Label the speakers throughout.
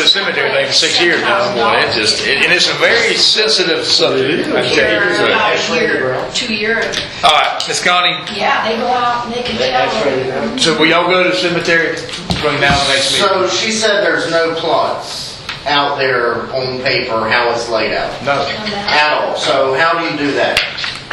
Speaker 1: cemetery thing for six years now, boy, it just, it- and it's a very sensitive subject. I
Speaker 2: Year,
Speaker 1: tell you.
Speaker 2: about a year, two year,
Speaker 1: All right, Miss Connie,
Speaker 2: yeah, they go out and they can tell.
Speaker 3: X-ray.
Speaker 1: so will y'all go to the cemetery from now to next meeting?
Speaker 4: So she said there's no plots out there on paper, how it's laid out,
Speaker 1: No.
Speaker 4: at all. So how do you do that?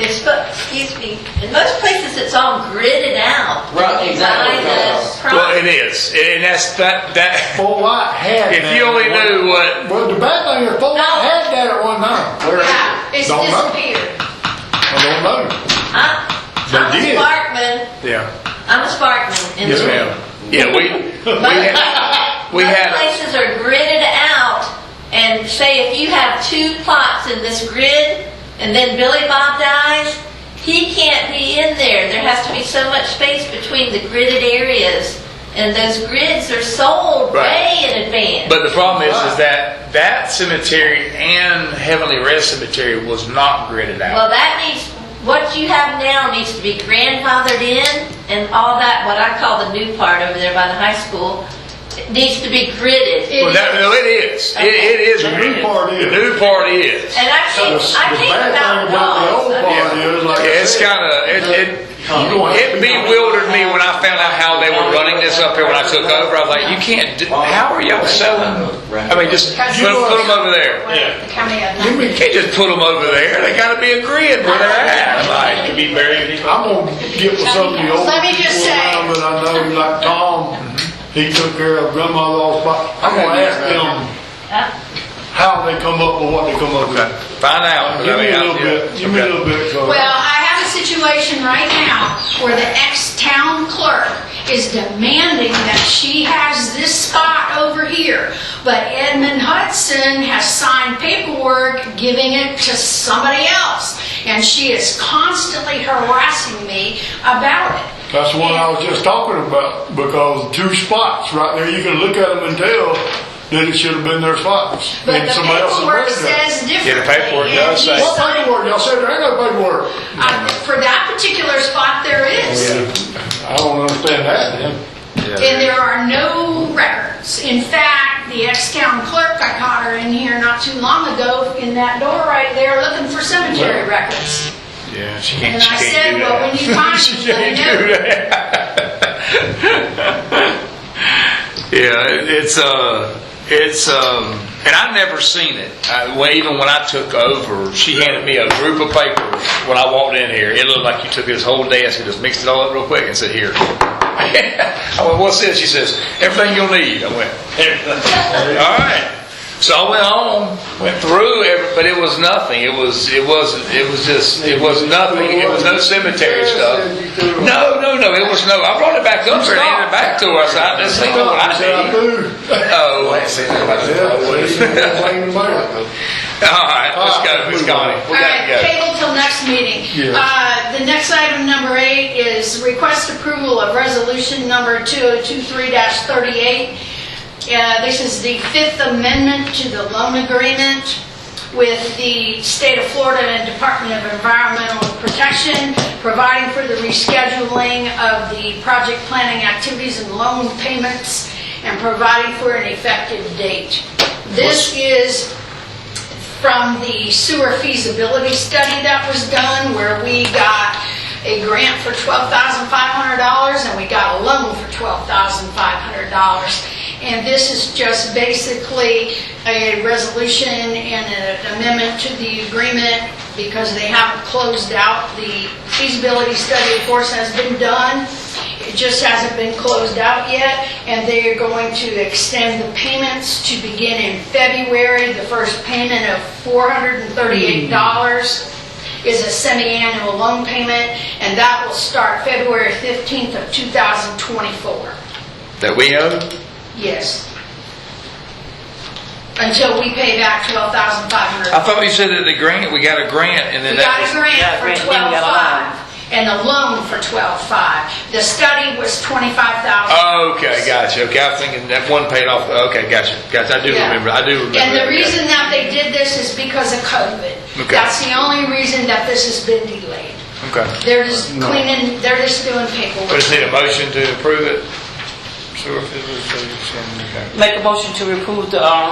Speaker 5: It's, but, excuse me, in most places it's all gridded out.
Speaker 4: Right, exactly.
Speaker 5: By the
Speaker 1: Well,
Speaker 5: pro-
Speaker 1: it is, and that's, that, that,
Speaker 3: Full White had
Speaker 1: if
Speaker 3: that
Speaker 1: you
Speaker 3: at
Speaker 1: only
Speaker 3: one-
Speaker 1: knew what,
Speaker 3: Well, the bad thing is Full White had that at one time.
Speaker 4: Where is it?
Speaker 2: Yeah, it's
Speaker 3: Don't know.
Speaker 2: disappeared.
Speaker 3: I don't know.
Speaker 5: I-
Speaker 3: They
Speaker 5: I'm a
Speaker 3: did.
Speaker 5: Sparkman,
Speaker 1: yeah,
Speaker 5: I'm a Sparkman. in
Speaker 1: yes
Speaker 5: the-
Speaker 1: ma'am. Yeah, we, we had, we
Speaker 5: Most
Speaker 1: had,
Speaker 5: places are gridded out, and say if you have two plots in this grid, and then Billy Bob dies, he can't be in there. There has to be so much space between the gridded areas, and those grids are sold
Speaker 1: Right.
Speaker 5: way in advance.
Speaker 1: But the problem is, is that that cemetery and Heavenly Rest Cemetery was not gridded
Speaker 5: Well,
Speaker 1: out.
Speaker 5: that needs, what you have now needs to be grandfathered in, and all that, what I call the new part over there by the high school, it needs to be gridded.
Speaker 1: Well, that, no, it is. It, it is.
Speaker 3: The new
Speaker 1: gridded.
Speaker 3: part is.
Speaker 1: The new part is.
Speaker 5: And I
Speaker 3: The
Speaker 5: came, I
Speaker 3: the
Speaker 5: came
Speaker 3: bad
Speaker 5: about
Speaker 3: thing about the
Speaker 5: dogs.
Speaker 3: old
Speaker 5: I mean,
Speaker 3: part is, like I
Speaker 1: Yeah, it's
Speaker 3: said,
Speaker 1: kind of, it, it,
Speaker 3: You gonna have
Speaker 1: it
Speaker 3: to-
Speaker 1: bewildered me when I found out how they were running this up here when I took over. I was like, you can't, do- how are y'all selling? I mean, just put, put them over there.
Speaker 2: Yeah. The county had
Speaker 1: You
Speaker 2: nothing.
Speaker 1: can't just put them over there. They gotta be agreeing where they're at. I'm Like,
Speaker 3: I'm gonna get with some of the old
Speaker 2: Let me just
Speaker 3: people
Speaker 2: say-
Speaker 3: around, but I know like Tom,
Speaker 1: Mm-hmm.
Speaker 3: he took care of grandma's spot. I'm gonna ask them
Speaker 5: Huh?
Speaker 3: how they come up with what they come up with.
Speaker 1: find out.
Speaker 3: Give me a little
Speaker 1: I-
Speaker 3: bit, give me a
Speaker 1: Okay.
Speaker 3: little bit. so-
Speaker 2: Well, I have a situation right now where the ex-town clerk is demanding that she has this spot over here, but Edmund Hudson has signed paperwork giving it to somebody else, and she is constantly harassing me about it.
Speaker 3: That's the one I was just talking about, because two spots right there, you can look at them and tell that it should have been their spots.
Speaker 2: But
Speaker 3: and
Speaker 2: the
Speaker 3: somebody else's
Speaker 2: paperwork
Speaker 3: was there.
Speaker 2: says differently.
Speaker 1: Yeah, the paperwork
Speaker 2: and
Speaker 1: does
Speaker 2: you
Speaker 1: say-
Speaker 3: What
Speaker 2: sign-
Speaker 3: paperwork, y'all said there ain't no paperwork.
Speaker 2: I- uh, For that particular spot, there is.
Speaker 3: I don't understand that, then.
Speaker 2: And there are no records. In fact, the ex-town clerk, I caught her in here not too long ago, in that door right there, looking for cemetery records.
Speaker 1: Yeah, she
Speaker 2: And
Speaker 1: can't, she
Speaker 2: I
Speaker 1: can't
Speaker 2: said,
Speaker 1: do
Speaker 2: well,
Speaker 1: that.
Speaker 2: when you find
Speaker 1: She
Speaker 2: it,
Speaker 1: can't
Speaker 2: let me
Speaker 1: do
Speaker 2: know.
Speaker 1: that. yeah, it- it's uh, it's um, and I've never seen it. I, well, even when I took over, she handed me a group of papers when I walked in here. It looked like you took this whole desk and just mixed it all up real quick and said, "Here." I went, "What's this?" She says, "Everything you'll need." I went, "Everything." all right. So I went on, went through, every, but it was nothing. It was, it wasn't, it was just, it was nothing. It was no cemetery stuff. No, no, no, it was no. I brought it back up here and handed it back to her. I said, "I- "This ain't what I
Speaker 3: Said I
Speaker 1: need."
Speaker 3: do.
Speaker 1: Oh,
Speaker 3: Yeah, see, you don't blame nobody.
Speaker 1: all right, let's go, Miss Connie.
Speaker 2: All
Speaker 1: We gotta
Speaker 2: right,
Speaker 1: go.
Speaker 2: table till next meeting. Uh, The next item, number eight, is request approval of resolution number 2023-38. Uh, This is the Fifth Amendment to the loan agreement with the State of Florida and Department of Environmental Protection, providing for the rescheduling of the project planning activities and loan payments, and providing for an effective date. This is from the sewer feasibility study that was done, where we got a grant for $12,500 and we got a loan for $12,500. And this is just basically a resolution and an amendment to the agreement because they haven't closed out the feasibility study, of course, has been done. It just hasn't been closed out yet, and they are going to extend the payments to begin in February. The first payment of $438 is a semi-annual loan payment, and that will start February 15th of 2024.
Speaker 1: That we own.
Speaker 2: Yes. Until we pay back
Speaker 1: I
Speaker 2: $12,500.
Speaker 1: thought you said that the grant. We got a grant, and then
Speaker 2: We
Speaker 1: that.
Speaker 2: got a
Speaker 1: was-
Speaker 2: grant
Speaker 6: Uh, Yeah,
Speaker 2: for
Speaker 6: grant, then we got a loan.
Speaker 2: 12,500 and a loan for 12,500. The study was 25,000.
Speaker 1: Oh, okay, gotcha. Okay, I was thinking that one paid off. Okay, gotcha, gotcha. I do
Speaker 2: Yeah.
Speaker 1: remember. I do remember.
Speaker 2: And
Speaker 1: that,
Speaker 2: the
Speaker 1: yeah.
Speaker 2: reason that they did this is because of COVID.
Speaker 1: Okay.
Speaker 2: That's the only reason that this has been delayed.
Speaker 1: Okay.
Speaker 2: They're just cleaning, they're just doing
Speaker 1: We
Speaker 2: paperwork.
Speaker 1: just need a motion to approve it. Sewer feasibility study, okay.
Speaker 6: Make a motion to approve the, um,